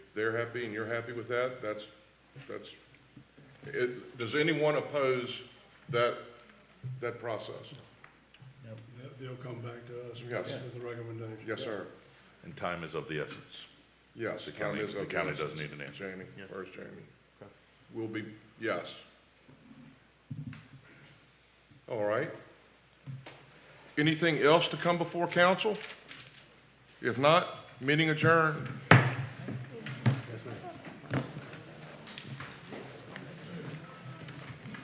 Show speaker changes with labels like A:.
A: they're happy and you're happy with that, that's, that's, it, does anyone oppose that, that process?
B: They- They'll come back to us
A: Yes.
B: with the recommendation.
A: Yes, sir.
C: And time is of the essence.
A: Yes, the county is.
C: The
A: up to
C: county
A: us.
C: does need an answer.
A: Jamie,
C: Yeah.
A: first Jamie.
C: Okay.
A: Will be, yes. All right. Anything else to come before council? If not, meeting adjourned.